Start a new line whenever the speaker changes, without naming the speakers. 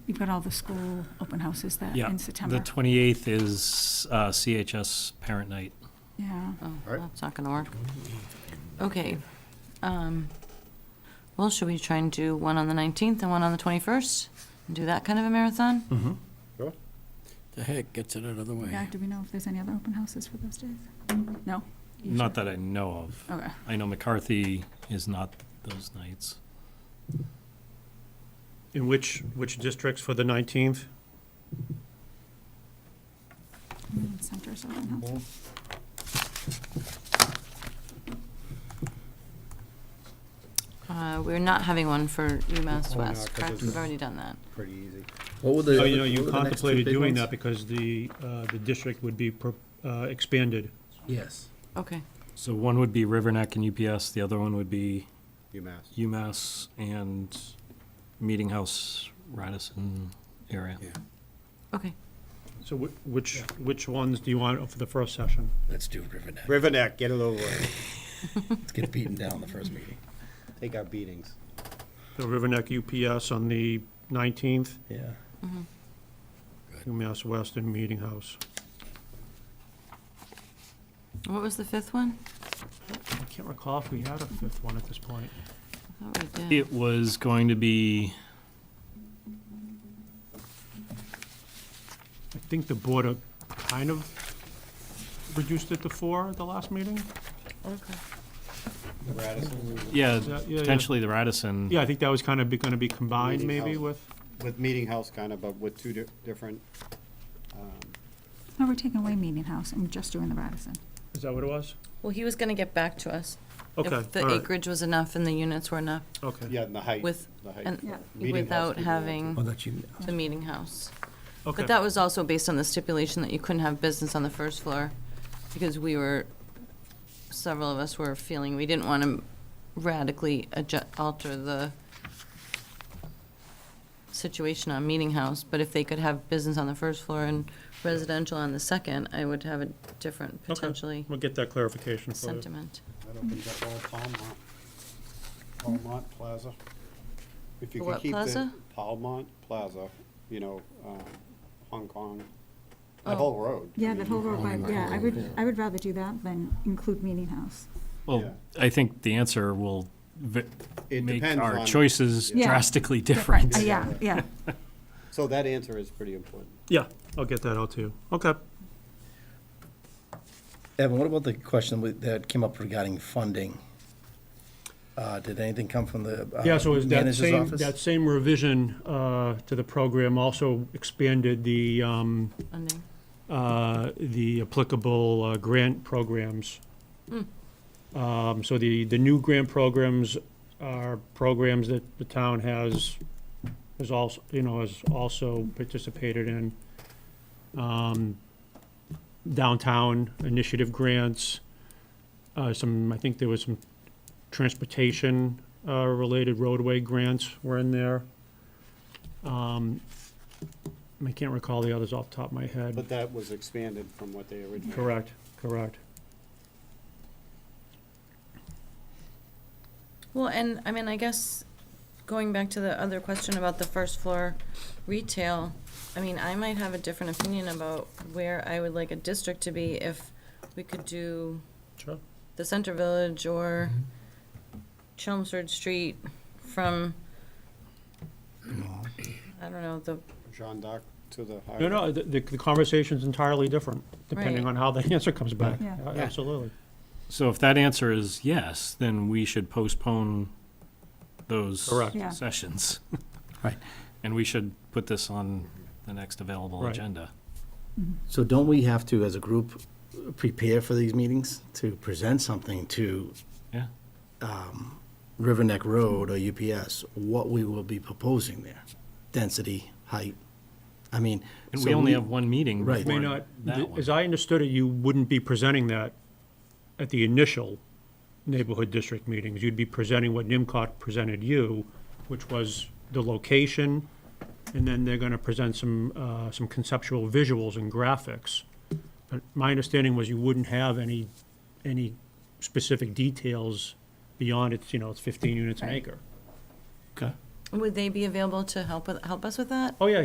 You've got all the school open houses that
Yeah,
in
The
September.
28th is uh, CHS Parent Night.
Yeah.
Oh,
All right.
that's not gonna work. Okay. um, Well, should we try and do one on the 19th and one on the 21st? And do that kind of a marathon?
Mm-hmm.
The heck gets it out of the
Yeah,
way.
do we know if there's any other open houses for those days? No? You
Not
sure?
that I know of.
Okay.
I know McCarthy is not those nights.
In which, which districts for the 19th?
Community Center's open house.
Uh, We're not having one for UMass
Oh, no,
West,
'cause
correct?
it's-
We've already done that.
Pretty easy.
What were the?
Oh, you know,
what
you
were the next two
contemplated
big
doing
ones?
that because the, uh, the district would be pro- uh, expanded.
Yes.
Okay.
So one would be Riverneck and UPS, the other one would be
UMass.
UMass and Meeting House, Radisson area.
Yeah,
Okay.
So wh- which, which ones do you want for the first session?
let's do Riverneck.
Riverneck, get it over with.
Let's get beaten down the first meeting.
Take our beatings.
The Riverneck UPS on the 19th,
Yeah.
mm-hmm.
UMass Weston Meeting House.
What was the fifth one?
I can't recall if we had a fifth one at this point.
I thought we did.
It was going to be,
I think the board uh, kind of reduced it to four at the last meeting?
Okay.
Radisson
yeah,
Yeah, yeah, yeah.
potentially the Radisson.
Yeah, I think that was kind of going to be combined
Meeting
maybe
house.
with,
with Meeting House kind of, but with two di- different, um,
No, we're taking away Meeting House and just doing the Radisson.
is that what it was?
Well, he was gonna get back to us.
Okay,
If the
all right,
acreage was enough and the units were enough
okay.
yeah, and the height.
with,
the height.
and
Yeah.
Meeting
without
house could be one, too.
having
Well, that you,
the meeting house.
Okay.
But that was also based on the stipulation that you couldn't have business on the first floor, because we were, several of us were feeling we didn't want to radically adjust, alter the situation on Meeting House, but if they could have business on the first floor and residential on the second, I would have a different
Okay.
potentially
We'll get that clarification for you.
sentiment.
That opens up all Palmont, Palmont Plaza. If you
The
could
what
keep the
plaza?
Palmont Plaza, you know, um, Hong Kong,
Oh.
that whole road.
Yeah,
I
that
mean,
whole road,
by-
by- yeah, I would, I would rather do that than include Meeting House.
Well, I think the answer will v-
It
make
depends
our
on-
choices
Yeah.
drastically different.
Uh, Yeah, yeah.
So that answer is pretty important.
Yeah, I'll get that out to you. Okay.
Evan, what about the question with- that came up regarding funding? Uh, Did anything come from the uh,
Yeah, so is that
manager's
same,
office?
that same revision uh, to the program also expanded the, um,
Funding.
uh, the applicable uh, grant programs. Um, So the, the new grant programs are programs that the town has, has also, you know, has also participated in. Um, Downtown initiative grants, uh, some, I think there was some transportation-related roadway grants were in there. Um, I can't recall the others off the top of my head.
But that was expanded from what they originally.
Correct, correct.
Well, and, I mean, I guess, going back to the other question about the first floor retail, I mean, I might have a different opinion about where I would like a district to be if we could do
Sure.
the Center Village or Chelmsford Street from, I don't know, the,
Jean Doc to the highway.
No, no, the, the conversation's entirely different, depending
Right.
on how the answer comes back.
Yeah.
A- Absolutely.
So if that answer is yes, then we should postpone those
Correct.
Yeah.
sessions.
Right.
And we should put this on the next available
Right.
agenda.
So don't we have to, as a group, prepare for these meetings to present something to
Yeah.
River Neck Road or UPS, what we will be proposing there? Density, height, I mean.
And
so
we only have one meeting
Right.
before
May not,
that
as
one.
I understood it, you wouldn't be presenting that at the initial neighborhood district meetings. You'd be presenting what NIMCOG presented you, which was the location, and then they're gonna present some, uh, some conceptual visuals and graphics. But my understanding was you wouldn't have any, any specific details beyond it's, you know, it's fifteen units an acre.
Okay.
would they be available to help with, help us with that?
Oh, yeah,